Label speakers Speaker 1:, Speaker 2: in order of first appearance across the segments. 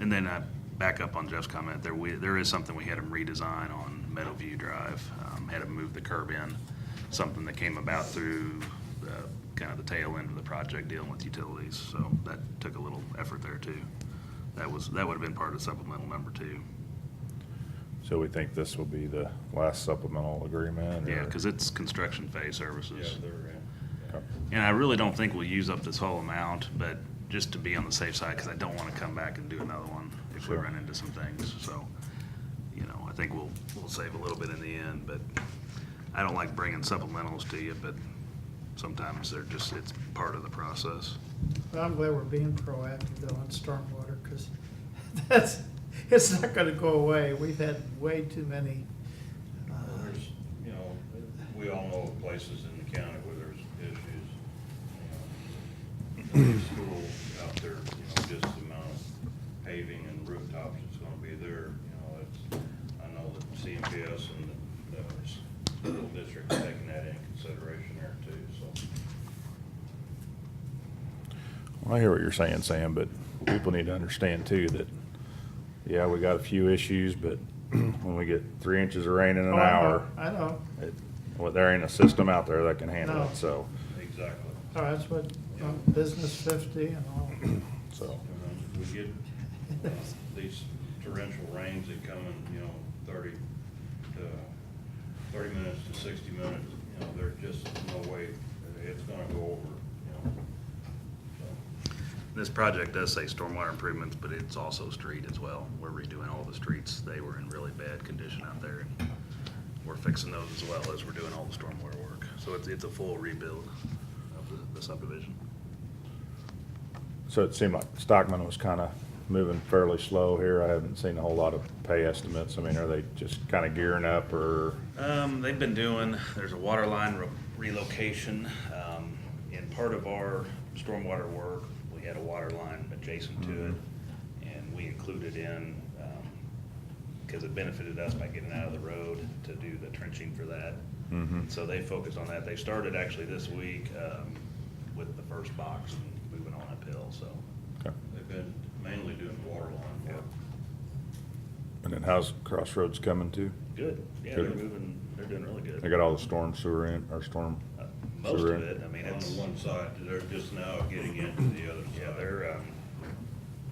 Speaker 1: And then I back up on Jeff's comment, there, we, there is something we had him redesign on Meadowview Drive. Um, Had him move the curb in, something that came about through the, kind of the tail end of the project dealing with utilities. So that took a little effort there too. That was, that would have been part of supplemental number two.
Speaker 2: So we think this will be the last supplemental agreement?
Speaker 1: Yeah,
Speaker 2: or-
Speaker 1: because it's construction phase services.
Speaker 2: Okay.
Speaker 1: And I really don't think we'll use up this whole amount, but just to be on the safe side, because I don't want to come back and do another one if we
Speaker 2: Sure.
Speaker 1: run into some things. So, you know, I think we'll, we'll save a little bit in the end, but I don't like bringing supplementals to you, but sometimes they're just, it's part of the process.
Speaker 3: Well, I'm glad we're being proactive though on stormwater, because that's, it's not gonna go away. We've had way too many. uh,
Speaker 4: Well, There's, you know, we all know of places in the county where there's issues. you know, there's School out there, you know, just the amount of paving and rooftops that's gonna be there, you know, it's, I know that CMPS and the, the school district's taking that into consideration there too, so.
Speaker 2: Well, I hear what you're saying, Sam, but people need to understand too that, yeah, we got a few issues, but when we get three inches of rain in an
Speaker 3: Oh, I know,
Speaker 2: hour,
Speaker 3: I know.
Speaker 2: it, well, there ain't a system out there that can handle
Speaker 3: No.
Speaker 2: it, so,
Speaker 4: Exactly.
Speaker 3: Oh, that's what, um, business fifty and all.
Speaker 2: so.
Speaker 4: And then We get uh, these torrential rains that come in, you know, thirty to, thirty minutes to sixty minutes, you know, there's just no way, it's gonna go over, you know. So,
Speaker 1: This project does say stormwater improvements, but it's also street as well. We're redoing all the streets. They were in really bad condition out there. and We're fixing those as well as we're doing all the stormwater work. So it's, it's a full rebuild of the- the subdivision.
Speaker 2: So it seemed like Stockman was kind of moving fairly slow here. I haven't seen a whole lot of pay estimates. I mean, are they just kind of gearing up or?
Speaker 1: Um, they've been doing, there's a water line re- relocation, um, and part of our stormwater work, we had a water line adjacent to it,
Speaker 2: Mm-hmm.
Speaker 1: and we included in, um, because it benefited us by getting out of the road to do the trenching for that.
Speaker 2: Mhm.
Speaker 1: So they focused on that. They started actually this week, um, with the first box and moving on uphill, so.
Speaker 2: Okay.
Speaker 4: They've been mainly doing water line work.
Speaker 2: And then how's Crossroads coming too?
Speaker 1: Good, yeah, they're
Speaker 2: Good.
Speaker 1: moving, they're doing really good.
Speaker 2: They got all the storm sewer in, or storm?
Speaker 1: Uh, Most
Speaker 2: sewer
Speaker 1: of
Speaker 2: in?
Speaker 1: it, I mean,
Speaker 4: On the
Speaker 1: it's.
Speaker 4: one side, they're just now getting into the other
Speaker 1: Yeah,
Speaker 4: side.
Speaker 1: they're, um,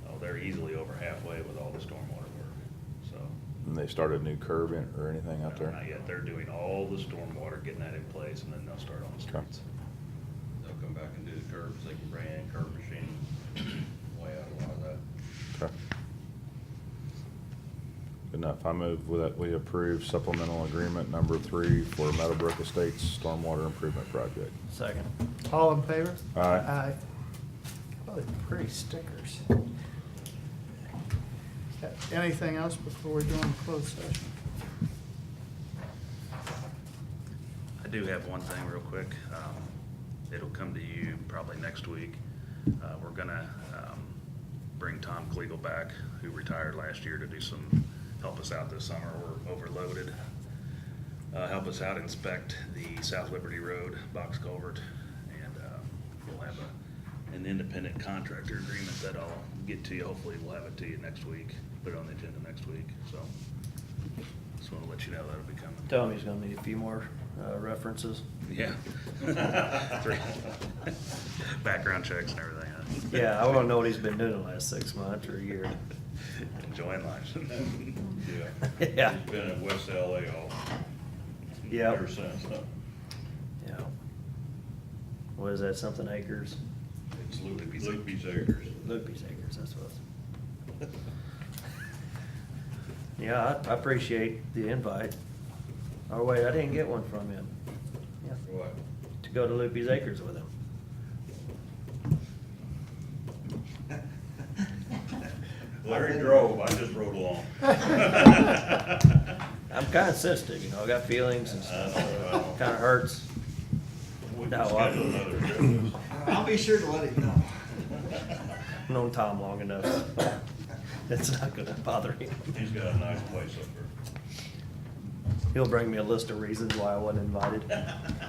Speaker 1: oh, they're easily over halfway with all the stormwater work, so.
Speaker 2: And they started a new curb in or anything out there?
Speaker 1: Not yet, they're doing all the stormwater, getting that in place, and then they'll start on the
Speaker 2: Okay.
Speaker 1: streets.
Speaker 4: They'll come back and do the curbs, they can bring in curb machine, way out of a lot of that.
Speaker 2: Okay. Good enough. I move that we approve supplemental agreement number three for Meadowbrook Estates Stormwater Improvement Project.
Speaker 5: Second.
Speaker 3: All in favor?
Speaker 2: Aye.
Speaker 3: Aye. Oh, they're pretty stickers. Uh, Anything else before we go into closed session?
Speaker 1: I do have one thing real quick. Um, It'll come to you probably next week. Uh, We're gonna um, bring Tom Kliegel back, who retired last year, to do some, help us out this summer. We're overloaded. Uh, Help us out inspect the South Liberty Road box culvert. And um, we'll have a- an independent contractor agreement that I'll get to you. Hopefully, we'll have it to you next week, put it on the agenda next week, so. Just wanna let you know that'll be coming.
Speaker 5: Tell him he's gonna need a few more uh, references.
Speaker 1: Yeah. Three. Background checks and everything, huh?
Speaker 5: Yeah, I wanna know what he's been doing the last six months or a year.
Speaker 1: Enjoying life.
Speaker 4: Yeah.
Speaker 5: Yeah,
Speaker 4: He's been in West LA all,
Speaker 5: Yep.
Speaker 4: ever since, huh?
Speaker 5: yeah. What is that, something acres?
Speaker 4: It's
Speaker 1: Loopy's-
Speaker 4: Loopy's, Loopy's Acres.
Speaker 5: Loopy's acres, that's what it's. Yeah, I I appreciate the invite. Oh, wait, I didn't get one from him. Yeah,
Speaker 4: What?
Speaker 5: To go to Loopy's acres with him.
Speaker 4: Larry drove, I just rode along.
Speaker 5: I'm kinda sensitive, you know, I got feelings and
Speaker 4: Uh,
Speaker 5: stuff, so it kinda hurts.
Speaker 4: We
Speaker 5: No,
Speaker 4: can
Speaker 5: I-
Speaker 4: schedule another trip.
Speaker 6: I'll be sure to let him know.
Speaker 5: I've known Tom long enough. It's not gonna bother him.
Speaker 4: He's got a nice place up there.
Speaker 5: He'll bring me a list of reasons why I wasn't invited. Uh,